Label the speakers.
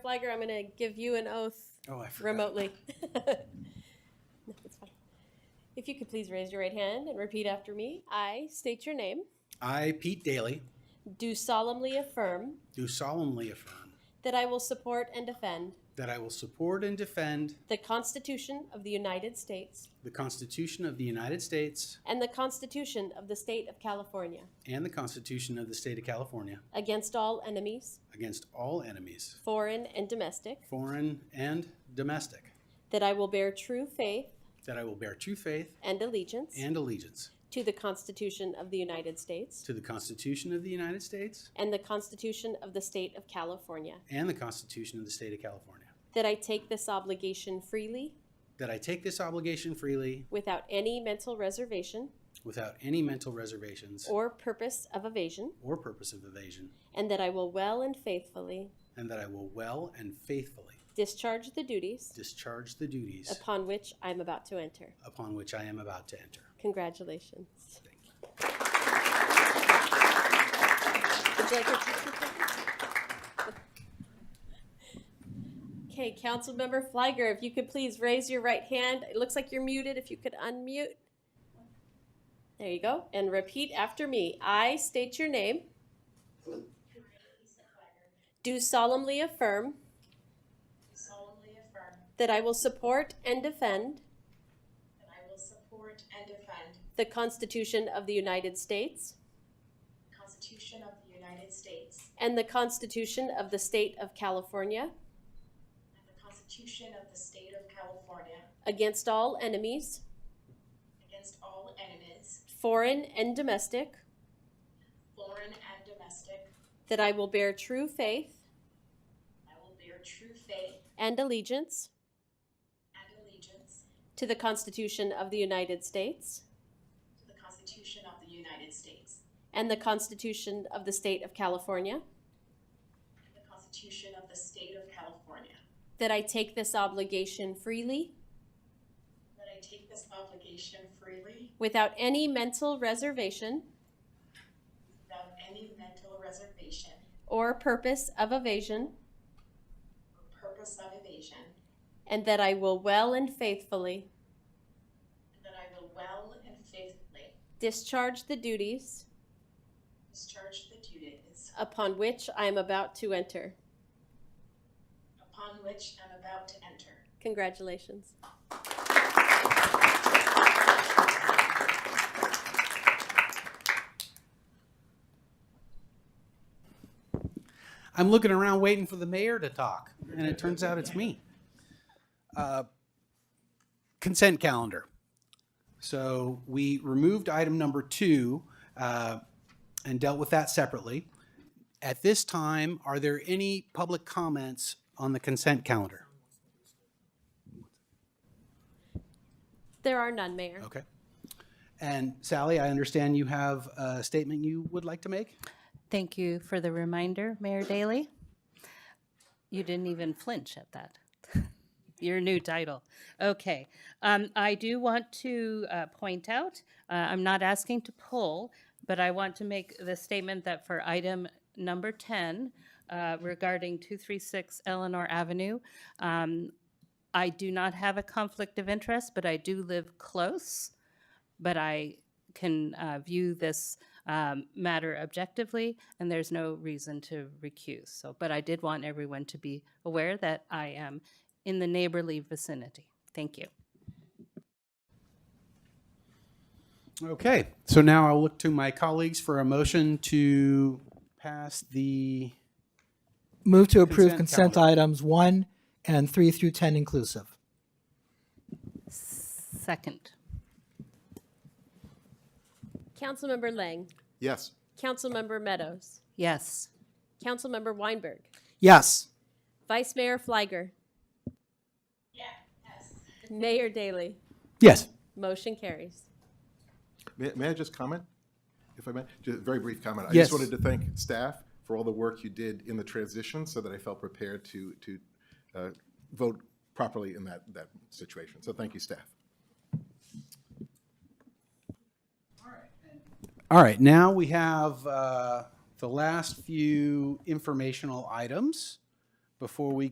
Speaker 1: Flagger, I'm gonna give you an oath
Speaker 2: Oh, I forgot.
Speaker 1: remotely. No, it's fine. If you could please raise your right hand and repeat after me. I state your name.
Speaker 2: I, Pete Daly,
Speaker 1: Do solemnly affirm
Speaker 2: do solemnly affirm
Speaker 1: that I will support and defend
Speaker 2: that I will support and defend
Speaker 1: the Constitution of the United States
Speaker 2: the Constitution of the United States
Speaker 1: and the Constitution of the State of California
Speaker 2: and the Constitution of the State of California
Speaker 1: against all enemies,
Speaker 2: against all enemies,
Speaker 1: foreign and domestic,
Speaker 2: foreign and domestic,
Speaker 1: that I will bear true faith
Speaker 2: that I will bear true faith
Speaker 1: and allegiance
Speaker 2: and allegiance
Speaker 1: to the Constitution of the United States
Speaker 2: to the Constitution of the United States
Speaker 1: and the Constitution of the State of California.
Speaker 2: and the Constitution of the State of California,
Speaker 1: That I take this obligation freely,
Speaker 2: that I take this obligation freely
Speaker 1: without any mental reservation
Speaker 2: without any mental reservations
Speaker 1: or purpose of evasion,
Speaker 2: or purpose of evasion,
Speaker 1: and that I will well and faithfully
Speaker 2: and that I will well and faithfully
Speaker 1: discharge the duties
Speaker 2: discharge the duties
Speaker 1: upon which I am about to enter.
Speaker 2: upon which I am about to enter.
Speaker 1: Congratulations. Would you like your tissue paper? Okay, Councilmember Fliger, if you could please raise your right hand. It looks like you're muted. If you could unmute. There you go. And repeat after me. I state your name. Do solemnly affirm
Speaker 3: do solemnly affirm
Speaker 1: that I will support and defend
Speaker 3: that I will support and defend
Speaker 1: the Constitution of the United States
Speaker 3: the Constitution of the United States
Speaker 1: and the Constitution of the State of California
Speaker 3: and the Constitution of the State of California
Speaker 1: against all enemies,
Speaker 3: against all enemies,
Speaker 1: foreign and domestic,
Speaker 3: foreign and domestic.
Speaker 1: that I will bear true faith
Speaker 3: I will bear true faith
Speaker 1: and allegiance
Speaker 3: and allegiance
Speaker 1: to the Constitution of the United States
Speaker 3: to the Constitution of the United States
Speaker 1: and the Constitution of the State of California,
Speaker 3: and the Constitution of the State of California.
Speaker 1: that I take this obligation freely
Speaker 3: That I take this obligation freely
Speaker 1: without any mental reservation
Speaker 3: without any mental reservation
Speaker 1: or purpose of evasion,
Speaker 3: or purpose of evasion,
Speaker 1: and that I will well and faithfully
Speaker 3: and that I will well and faithfully
Speaker 1: discharge the duties
Speaker 3: discharge the duties
Speaker 1: upon which I am about to enter.
Speaker 3: upon which I'm about to enter.
Speaker 1: Congratulations.
Speaker 2: I'm looking around waiting for the mayor to talk, and it turns out it's me. Uh, Consent calendar. So we removed item number two uh, and dealt with that separately. At this time, are there any public comments on the consent calendar?
Speaker 1: There are none, Mayor.
Speaker 2: Okay. And Sally, I understand you have a statement you would like to make?
Speaker 4: Thank you for the reminder, Mayor Daley. You didn't even flinch at that. Your new title. Okay. Um, I do want to uh, point out, uh, I'm not asking to pull, but I want to make the statement that for item number 10 uh, regarding 236 Eleanor Avenue, um, I do not have a conflict of interest, but I do live close but I can uh, view this um, matter objectively, and there's no reason to recuse. So, but I did want everyone to be aware that I am in the neighborly vicinity. Thank you.
Speaker 2: Okay, so now I'll look to my colleagues for a motion to pass the
Speaker 5: Move to approve
Speaker 2: Consent
Speaker 5: consent
Speaker 2: calendar.
Speaker 5: items one and three through 10 inclusive.
Speaker 4: Second.
Speaker 1: Councilmember Lang,
Speaker 6: Yes.
Speaker 1: Councilmember Meadows,
Speaker 4: Yes.
Speaker 1: Councilmember Weinberg,
Speaker 5: Yes.
Speaker 1: Vice Mayor Fliger,
Speaker 3: Yeah, yes.
Speaker 1: Mayor Daley.
Speaker 2: Yes.
Speaker 1: Motion carries.
Speaker 6: May, may I just comment? If I may, just a very brief comment. I
Speaker 2: Yes.
Speaker 6: just wanted to thank staff for all the work you did in the transition so that I felt prepared to, to uh, vote properly in that, that situation. So thank you, staff.
Speaker 2: All right, now we have uh, the last few informational items before we